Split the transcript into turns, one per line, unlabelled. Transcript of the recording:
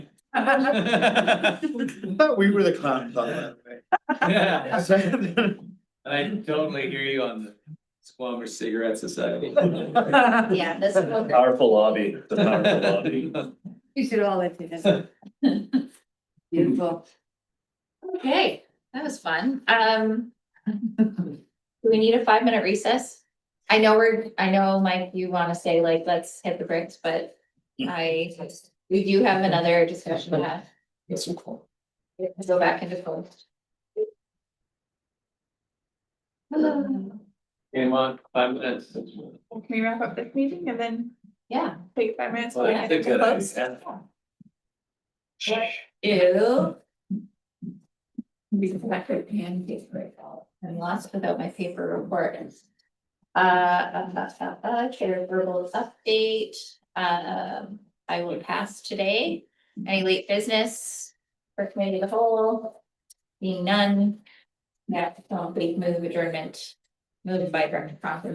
Thought we were the clowns on that,
Yeah,
right?
I totally hear you on the Squamish Cigarette Society.
Yeah, that's.
Powerful lobby, the powerful lobby.
You should all live together. Beautiful.
Okay, that was fun. Um. Do we need a five minute recess? I know we're, I know, Mike, you wanna say like, let's hit the bricks, but I, we do have another discussion to have.
That's so cool.
Go back into closed. Hello.
Game on, five minutes.
Can we wrap up this meeting and then
Yeah.
take five minutes?
Well, that's a
and
good
close?
idea.
Ew. Be collected and get rid of. I'm lost without my paper report. Uh, uh, uh, uh, chair verbal update, um, I will pass today. Any late business for committee of the whole? Being none. Yeah, big move adjournment. Moved by Director Crocker,